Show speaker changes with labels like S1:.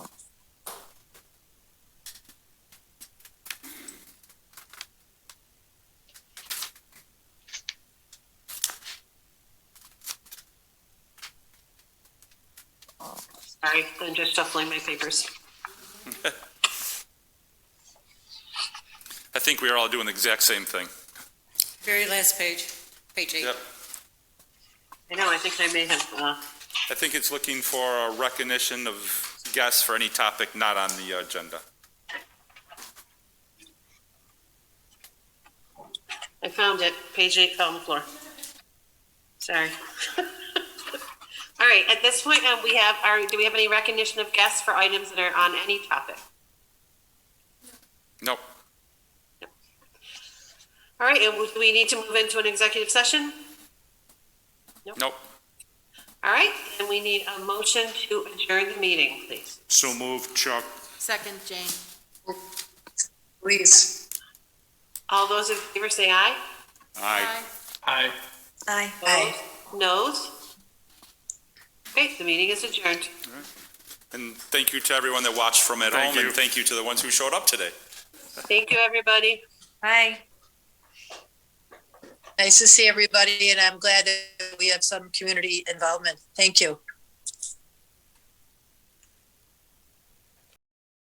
S1: Sorry, I'm just shuffling my papers.
S2: I think we are all doing the exact same thing.
S3: Very last page, page eight.
S2: Yep.
S1: I know, I think I may have, uh,
S2: I think it's looking for a recognition of guests for any topic not on the agenda.
S1: I found it, page eight fell on the floor. Sorry. All right, at this point, um, we have our, do we have any recognition of guests for items that are on any topic?
S2: Nope.
S1: All right, and we- do we need to move into an executive session?
S2: Nope.
S1: All right, and we need a motion to adjourn the meeting, please.
S4: So moved, Chuck.
S3: Second, Jane.
S5: Please.
S1: All those in favor say aye.
S2: Aye.
S4: Aye.
S5: Aye. Aye.
S1: Noes? Okay, the meeting is adjourned.
S2: And thank you to everyone that watched from at
S4: Thank
S2: home, and
S4: you.
S2: thank you to the ones who showed up today.
S1: Thank you, everybody.
S5: Aye. Nice to see everybody, and I'm glad that we have some community involvement. Thank you.